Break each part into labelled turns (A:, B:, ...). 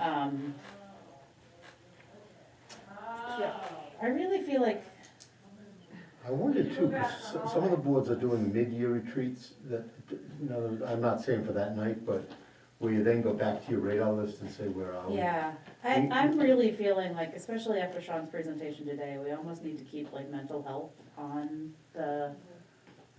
A: um. Yeah, I really feel like,
B: I wonder too, 'cause s- some of the boards are doing mid-year retreats that, no, I'm not saying for that night, but where you then go back to your radar list and say, where are we?
A: yeah, I, I'm really feeling like, especially after Sean's presentation today, we almost need to keep like mental health on the,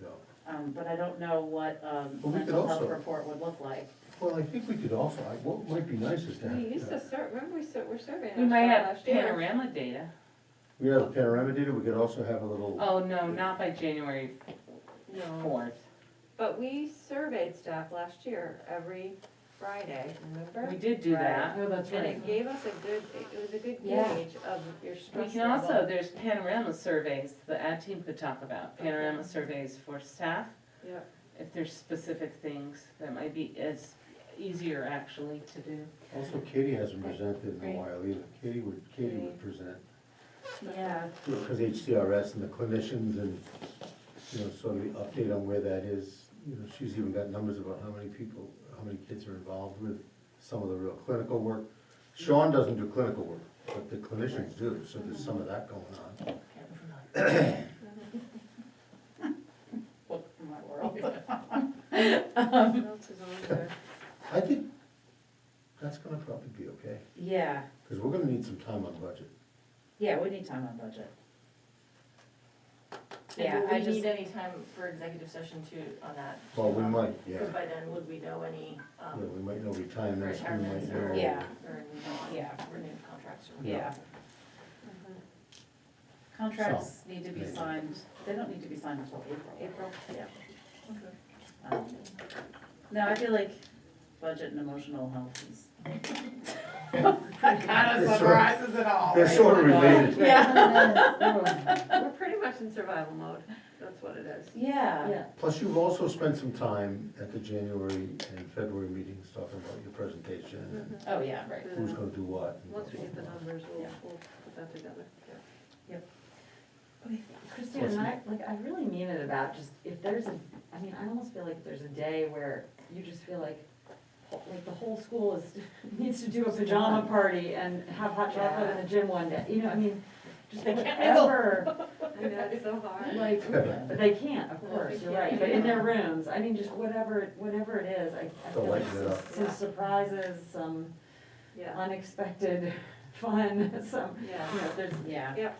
B: Yeah.
A: um, but I don't know what, um,
B: Well, we could
A: mental health
B: also-
A: report would look like.
B: Well, I think we could also, I- what might be nice is to have. uh,
C: We used to serve, remember we served, we're serving.
D: We
C: our
D: might
C: stuff
D: have
C: last year.
D: panorama data.
B: We have a panorama data, we could also have a little.
D: Oh, no, not by January
C: No,
D: fourth.
C: but we surveyed staff last year every Friday, remember?
D: We did do that.
E: Oh, that's
C: And
E: right.
C: it gave us a good, it was a good
D: Yeah.
C: gauge of your
D: We
C: stress
D: can also,
C: level.
D: there's panorama surveys, the ad team could talk about, panorama surveys for staff.
C: Yep.
D: If there's specific things that might be, it's easier actually to do.
B: Also, Katie hasn't presented in a while either. Katie would, Katie would present,
A: Yeah.
B: because HCRS and the clinicians and, you know, sort of the update on where that is. You know, she's even got numbers about how many people, how many kids are involved with some of the real clinical work. Sean doesn't do clinical work, but the clinicians do, so there's some of that going on.
A: What in my world?
C: What else is on there?
B: I think that's gonna probably be okay,
A: Yeah,
B: because we're gonna need some time on budget.
A: yeah, we need time on budget. Yeah,
F: And
A: I
F: will we
A: just-
F: need any time for executive session too on that?
B: Well, we might, yeah,
F: Because by then, would we know any
B: Yeah,
F: um,
B: we might know retirements, we might
F: retirements or?
B: know.
A: Yeah.
F: Or new
A: Yeah.
F: renewed contracts or?
A: Yeah.
C: Uh-huh.
A: Contracts need to be
B: maybe.
A: signed, they don't need to be signed until April.
C: April.
A: Um, No, I feel like budget and emotional health is. Kind
B: It's sort of-
A: it all.
B: They're
A: right? Oh
B: sort of related.
A: Yeah,
C: We're pretty much in survival mode, that's what it is.
A: yeah,
E: Yeah.
B: Plus, you've also spent some time at the January and February meetings talking about your presentation and
A: oh, yeah, right.
B: who's
C: Uh,
B: gonna do what. and
C: Once we get the
B: blah, blah,
C: numbers, we'll,
A: Yeah.
C: we'll put that together.
E: Christine, and I, like, I really mean it about just, if there's a, I mean, I almost feel like there's a day where you just feel like, like the whole school is, needs to do a pajama party and have hot chocolate in the gym one day, you know, I mean, just
D: They can't mingle.
E: whatever,
C: I know, it's so hard.
E: like,
B: blah.
E: they can't, of
C: Well,
E: course,
C: they
E: you're
C: can't,
E: right, but in
C: yeah.
E: their rooms, I mean, just whatever, whatever it is, I, I
B: They'll
E: feel like
B: lighten it
E: some,
B: up.
E: some
C: Yeah.
E: surprises, some
C: Yeah,
E: unexpected fun, some,
C: yeah.
E: you know, there's
A: Yeah.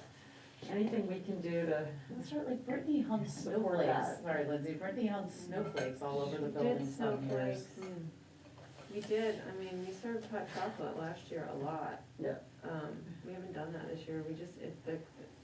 E: anything we can do to.
A: That's right, like Brittany hung
E: Support
A: snowflakes,
E: that.
A: sorry Lindsay, Brittany hung snowflakes all over the
C: We
A: building
C: did
A: some years.
C: snowflakes. We did, I mean, we served hot chocolate last year a lot.
E: Yeah.
C: Um, we haven't done that this year, we just, it, the,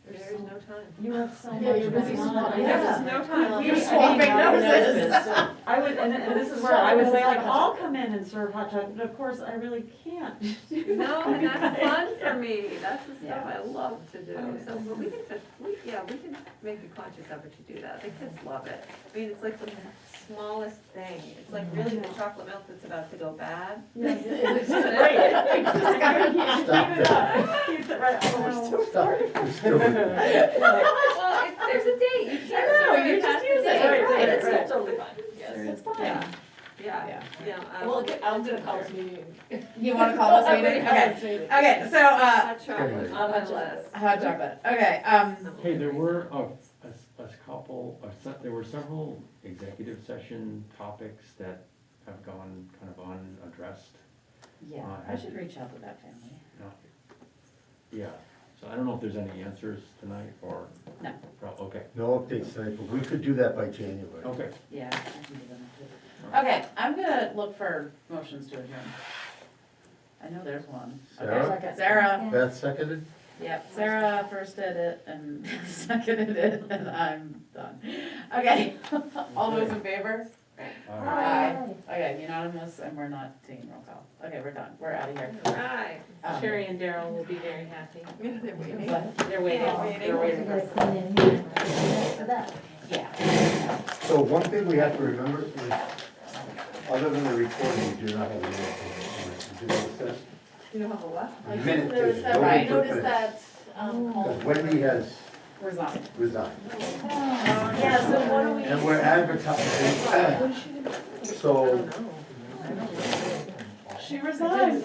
E: There's
C: there's
E: so-
C: no time.
E: You have so much
A: Yeah, you're busy
E: going on.
A: swapping. Yeah.
C: There's just no time.
A: You're
E: You're
A: swapping
E: swapping
A: noses.
E: I would, and, and this is where I would say, like, I'll come in and serve hot chocolate, but of course, I really can't do that.
C: No, and that's fun for me, that's the stuff
A: Yeah.
C: I love to do,
E: Yeah.
C: so, but we can, just- we, yeah, we can make a conscious effort to do that, the kids love it. I mean, it's like the smallest thing, it's like really the chocolate milk that's about to go bad.
E: Right. Just gotta keep-
B: Stop
E: keep it up. Keep it right. Oh, we're so-
B: Stop, you're stupid.
C: Well, it's, there's a date, you can't.
A: No,
C: serve
A: you just
C: past
A: use
C: the
A: it,
C: date.
E: Right, right,
A: it's
E: right.
A: totally fine, it's fine.
C: Yeah. Yeah,
A: Yeah.
C: yeah. um,
F: Well, okay, I'm gonna call this meeting.
A: You wanna call this meeting? Okay, okay, so, uh,
C: Hot chocolate
B: Anyway.
C: on my list.
A: hot chocolate, okay, um,
G: Hey, there were a, a s- a s- couple, a se- there were several executive session topics that have gone kind of unaddressed.
A: yeah, I should reach out to that family.
G: Not- Yeah, so I don't know if there's any answers tonight or.
A: No.
G: Prob- Okay,
B: No updates tonight, but we could do that by January.
G: okay.
A: Yeah, I can do that. Okay, I'm gonna look for motions to adjourn. I know there's one.
B: Sarah?
A: Okay, Sarah,
B: Beth seconded?
A: yep, Sarah first did it and seconded it, and I'm done. Okay, all those in favor?
G: All right.
A: Aye. Okay, unanimous, and we're not taking roll call. Okay, we're done, we're out of here.
C: Right.
A: Um,
D: Sherry and Daryl will be very happy.
C: Yeah, they're waiting.
A: but-
D: They're waiting,
C: Yeah, waiting.
D: they're waiting.
A: Yeah.
B: So one thing we have to remember is, other than the recording, we do not have a minute. We do have a set-
C: You don't have a what?
A: I just
B: Minute
A: noticed
B: tape,
A: that,
B: no
A: right.
B: need for
A: Noticed
B: minutes.
A: that, um, all-
B: Because Wendy has
A: Resigned.
B: resigned.
A: Oh, Yeah, so what do we?
B: And we're advertising. So
A: She resigned.